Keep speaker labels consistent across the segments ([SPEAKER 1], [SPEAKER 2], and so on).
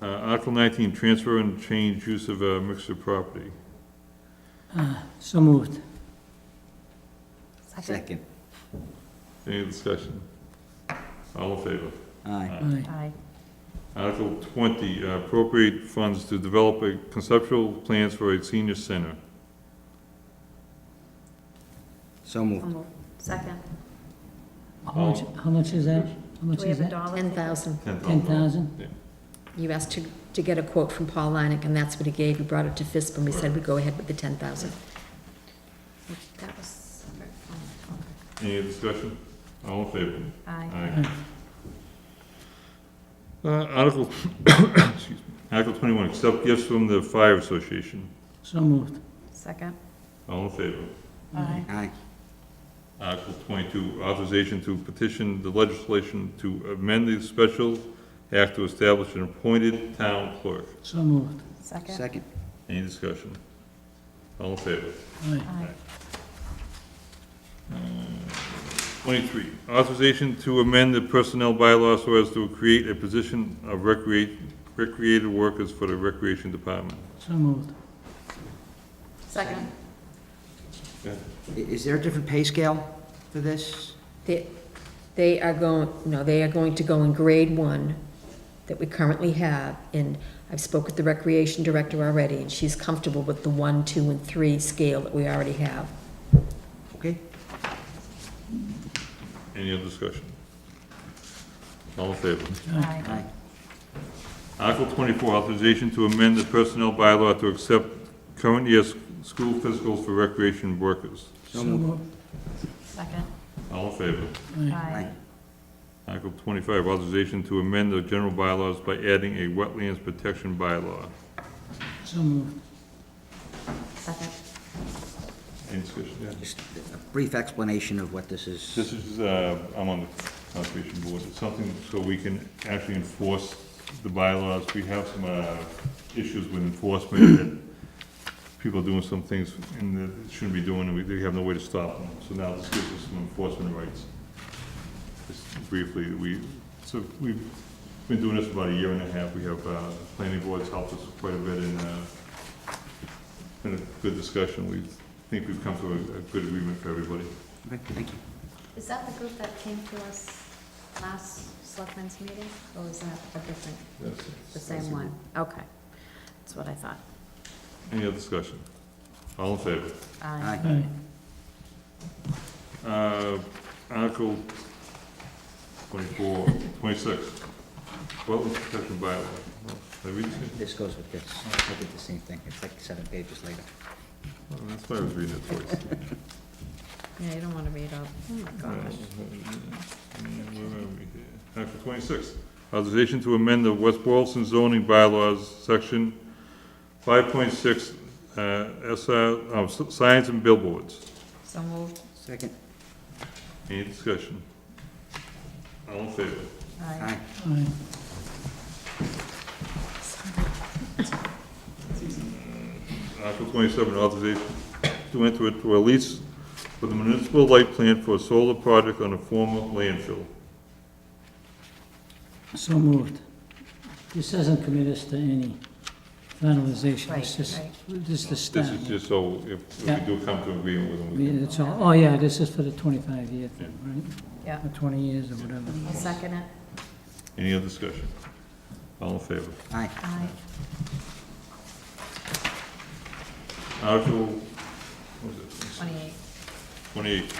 [SPEAKER 1] Uh, Article nineteen, transfer and change use of a mixed property.
[SPEAKER 2] So moved.
[SPEAKER 3] Second.
[SPEAKER 1] Any discussion? All in favor?
[SPEAKER 3] Aye.
[SPEAKER 2] Aye.
[SPEAKER 4] Aye.
[SPEAKER 1] Article twenty, uh, appropriate funds to develop a conceptual plans for a senior center.
[SPEAKER 3] So moved.
[SPEAKER 4] Second.
[SPEAKER 2] How much, how much is that? How much
[SPEAKER 4] Do we
[SPEAKER 2] is
[SPEAKER 4] have
[SPEAKER 2] that?
[SPEAKER 4] a dollar?
[SPEAKER 5] Ten thousand.
[SPEAKER 1] Ten
[SPEAKER 2] Ten thousand?
[SPEAKER 5] You asked to, to get a quote from Paul Leineck, and that's what he gave. He brought it to FISB, and we said we'd go ahead with the ten thousand.
[SPEAKER 4] That was,
[SPEAKER 1] Any discussion? All in favor?
[SPEAKER 4] aye.
[SPEAKER 1] Aye. Uh, Article, excuse me, Article twenty-one, accept gifts from the Fire Association.
[SPEAKER 2] So moved.
[SPEAKER 4] Second.
[SPEAKER 1] All in favor?
[SPEAKER 4] Aye.
[SPEAKER 3] Aye.
[SPEAKER 1] Article twenty-two, authorization to petition the legislation to amend the special act to establish an appointed town clerk.
[SPEAKER 2] So moved.
[SPEAKER 4] Second.
[SPEAKER 3] Second.
[SPEAKER 1] Any discussion? All in favor?
[SPEAKER 2] Aye.
[SPEAKER 4] Aye.
[SPEAKER 1] Twenty-three, authorization to amend the personnel bylaws so as to create a position of recreate, recreated workers for the recreation department.
[SPEAKER 2] So moved.
[SPEAKER 4] Second.
[SPEAKER 3] I- Is there a different pay scale for this?
[SPEAKER 5] They, they are going, no, they are going to go in grade one that we currently have, and I've spoke with the recreation director already, and she's comfortable with the one, two, and three scale that we already have.
[SPEAKER 3] Okay?
[SPEAKER 1] Any other discussion? All in favor?
[SPEAKER 4] Aye.
[SPEAKER 3] Aye.
[SPEAKER 1] Article twenty-four, authorization to amend the personnel bylaw to accept current year s- school physicals for recreation workers.
[SPEAKER 3] So moved.
[SPEAKER 4] Second.
[SPEAKER 1] All in favor?
[SPEAKER 4] Aye.
[SPEAKER 1] Article twenty-five, authorization to amend the general bylaws by adding a wetlands protection bylaw.
[SPEAKER 2] So moved.
[SPEAKER 4] Second.
[SPEAKER 1] Any discussion?
[SPEAKER 3] Just a brief explanation of what this is.
[SPEAKER 1] This is, uh, I'm on the conservation board, it's something so we can actually enforce the bylaws. We have some, uh, issues with enforcement that people are doing some things and that they shouldn't be doing, and we, they have no way to stop them. So now this gives us some enforcement rights. Just briefly, we, so we've been doing this about a year and a half. We have, uh, planning boards helped us quite a bit in, uh, been a good discussion. We think we've come to a, a good agreement for everybody.
[SPEAKER 3] Okay, thank you.
[SPEAKER 4] Is that the group that came to us last selectmen's meeting, or was that a different,
[SPEAKER 1] That's it.
[SPEAKER 4] the same one? Okay. That's what I thought.
[SPEAKER 1] Any other discussion? All in favor?
[SPEAKER 4] Aye.
[SPEAKER 3] Aye.
[SPEAKER 2] Aye.
[SPEAKER 1] Uh, Article 24, 26, wetland protection bylaw. Did I read this?
[SPEAKER 3] This goes with this. I did the same thing. It's like seven pages later.
[SPEAKER 1] Oh, That's why I was reading it twice.
[SPEAKER 4] Yeah, you don't want to read out. Oh, my gosh.
[SPEAKER 1] Where are we here? Article 26, authorization to amend the West Boylston zoning bylaws, section 5.6, uh, SR, oh, s- signs and billboards.
[SPEAKER 4] So moved.
[SPEAKER 3] Second.
[SPEAKER 1] Any discussion? All in favor?
[SPEAKER 4] Aye.
[SPEAKER 3] Aye.
[SPEAKER 2] Aye.
[SPEAKER 1] Article twenty-seven, authorization to enter into a lease for the municipal light plant for a solar project on a former landfill.
[SPEAKER 2] So moved. This doesn't commit us to any finalization. It's
[SPEAKER 4] Right,
[SPEAKER 2] just,
[SPEAKER 4] right.
[SPEAKER 2] this is the start.
[SPEAKER 1] This is just so if if
[SPEAKER 2] Oh, Yeah.
[SPEAKER 1] we do come to agreement with them.
[SPEAKER 2] I
[SPEAKER 1] we
[SPEAKER 2] mean,
[SPEAKER 1] can-
[SPEAKER 2] That's all. Oh, yeah, this is for the twenty-five year thing, right?
[SPEAKER 4] Yeah.
[SPEAKER 2] Or twenty years or whatever.
[SPEAKER 4] I'll second it.
[SPEAKER 1] Any other discussion? All in favor?
[SPEAKER 3] Aye.
[SPEAKER 4] Aye.
[SPEAKER 1] Article, what was it?
[SPEAKER 4] Twenty-eight.
[SPEAKER 1] Twenty-eight,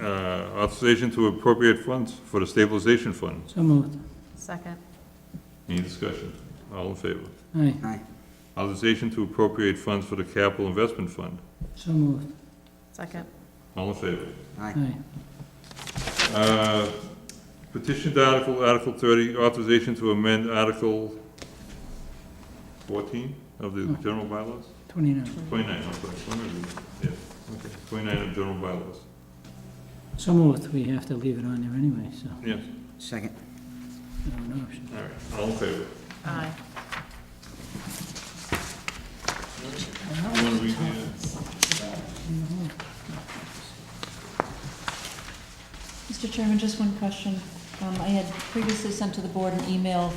[SPEAKER 1] uh, authorization to appropriate funds for the stabilization fund.
[SPEAKER 2] So moved.
[SPEAKER 4] Second.
[SPEAKER 1] Any discussion? All in favor?
[SPEAKER 2] Aye.
[SPEAKER 3] Aye.
[SPEAKER 1] Authorization to appropriate funds for the capital investment fund.
[SPEAKER 2] So moved.
[SPEAKER 4] Second.
[SPEAKER 1] All in favor?
[SPEAKER 3] Aye.
[SPEAKER 2] Aye.
[SPEAKER 1] Uh, Petition to Article, Article 30, authorization to amend Article 14 of the general bylaws?
[SPEAKER 2] Twenty-nine.
[SPEAKER 1] 29, I'm sorry, 29, yeah, okay, 29 of general bylaws,
[SPEAKER 2] So moved. We have to leave it on there anyway, so.
[SPEAKER 1] yes,
[SPEAKER 3] Second.
[SPEAKER 2] I don't know.
[SPEAKER 1] all right, all in favor?
[SPEAKER 4] Aye.
[SPEAKER 1] You wanna read the- uh,
[SPEAKER 6] Mr. Chairman, just one question. Um, I had previously sent to the board an email